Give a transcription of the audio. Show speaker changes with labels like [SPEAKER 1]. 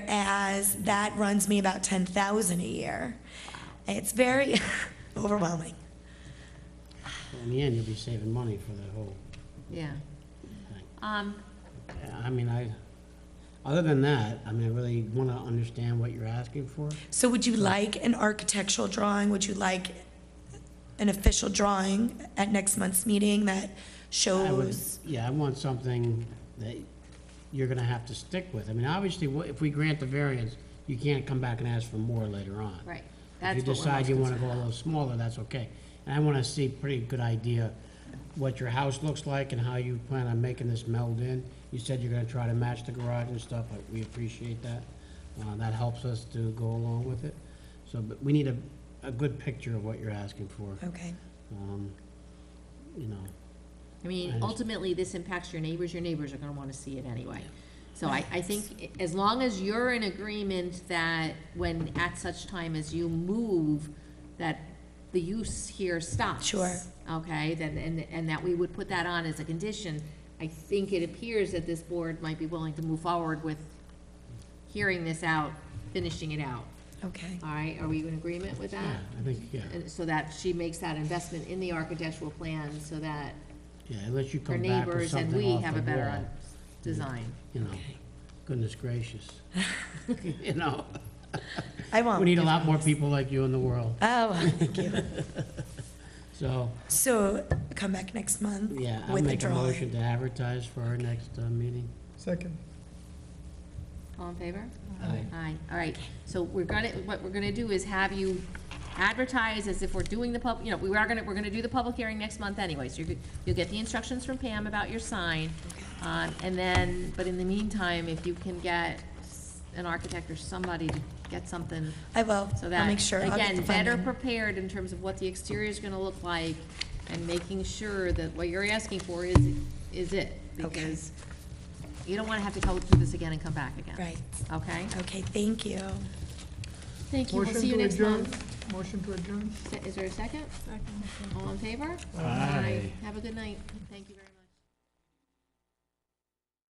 [SPEAKER 1] whereas that runs me about 10,000 a year. It's very overwhelming.
[SPEAKER 2] In the end, you'll be saving money for the whole
[SPEAKER 3] Yeah.
[SPEAKER 2] thing.
[SPEAKER 3] Um,
[SPEAKER 2] I mean, I, other than that, I mean, I really want to understand what you're asking for.
[SPEAKER 1] So would you like an architectural drawing? Would you like an official drawing at next month's meeting that
[SPEAKER 2] I would-
[SPEAKER 1] shows?
[SPEAKER 2] Yeah, I want something that you're going to have to stick with. I mean, obviously, wha- if we grant the variance, you can't come back and ask for more later on.
[SPEAKER 3] right.
[SPEAKER 2] If you
[SPEAKER 3] That's what we're
[SPEAKER 2] decide
[SPEAKER 3] most
[SPEAKER 2] you want to
[SPEAKER 3] concerned
[SPEAKER 2] go a little smaller, that's okay. And I want to see pretty good idea what your house looks like and how you plan on making this meld in. You said you're going to try to match the garage and stuff, but we appreciate that. Uh, That helps us to go along with it. So, but we need a, a good picture of what you're asking for,
[SPEAKER 1] Okay,
[SPEAKER 2] um, you know.
[SPEAKER 3] I mean,
[SPEAKER 2] Right.
[SPEAKER 3] ultimately, this impacts your neighbors, your neighbors are gonna wanna see it anyway. So I, I think i- as long as you're in agreement that when, at such time as you move, that the use here stops.
[SPEAKER 1] Sure.
[SPEAKER 3] Okay, then, and, and that we would put that on as a condition, I think it appears that this board might be willing to move forward with hearing this out, finishing it out.
[SPEAKER 1] okay.
[SPEAKER 3] All right, are we in agreement with that?
[SPEAKER 2] Yeah, I think, yeah,
[SPEAKER 3] And so that she makes that investment in the architectural plan so that
[SPEAKER 2] yeah, unless you
[SPEAKER 3] her
[SPEAKER 2] come back with
[SPEAKER 3] neighbors and we
[SPEAKER 2] something off
[SPEAKER 3] have
[SPEAKER 2] the
[SPEAKER 3] a better
[SPEAKER 2] wall,
[SPEAKER 3] un- design.
[SPEAKER 2] You know, goodness gracious. You know,
[SPEAKER 1] I won't.
[SPEAKER 2] we need a lot more people like you in the world,
[SPEAKER 1] Oh, thank you.
[SPEAKER 2] so.
[SPEAKER 1] So come back next month
[SPEAKER 2] Yeah, I'll
[SPEAKER 1] with a
[SPEAKER 2] make a
[SPEAKER 1] drawing.
[SPEAKER 2] motion to advertise for our next uh, meeting.
[SPEAKER 4] Second.
[SPEAKER 3] All in favor? Aye, all right. So we're gonna, what we're gonna do is have you advertise as if we're doing the pub, you know, we are gonna, we're gonna do the public hearing next month anyway. So you're, you'll get the instructions from Pam about your sign. Um, and then, but in the meantime, if you can get s- an architect or somebody to get something
[SPEAKER 1] I will.
[SPEAKER 3] So
[SPEAKER 1] I'll
[SPEAKER 3] that,
[SPEAKER 1] make sure. I'll get
[SPEAKER 3] again,
[SPEAKER 1] the
[SPEAKER 3] better
[SPEAKER 1] funding.
[SPEAKER 3] prepared in terms of what the exterior is gonna look like and making sure that what you're asking for is, is it.
[SPEAKER 1] Okay.
[SPEAKER 3] Because you don't wanna have to go through this again and come back again.
[SPEAKER 1] Right.
[SPEAKER 3] Okay?
[SPEAKER 1] Okay, thank you.
[SPEAKER 3] Thank you. We'll
[SPEAKER 4] Motion
[SPEAKER 3] see you
[SPEAKER 4] to
[SPEAKER 3] next
[SPEAKER 4] adjourn.
[SPEAKER 3] month.
[SPEAKER 4] Motion to adjourn.
[SPEAKER 3] Is there a second? Second. All in favor? Have a good night. Thank you. very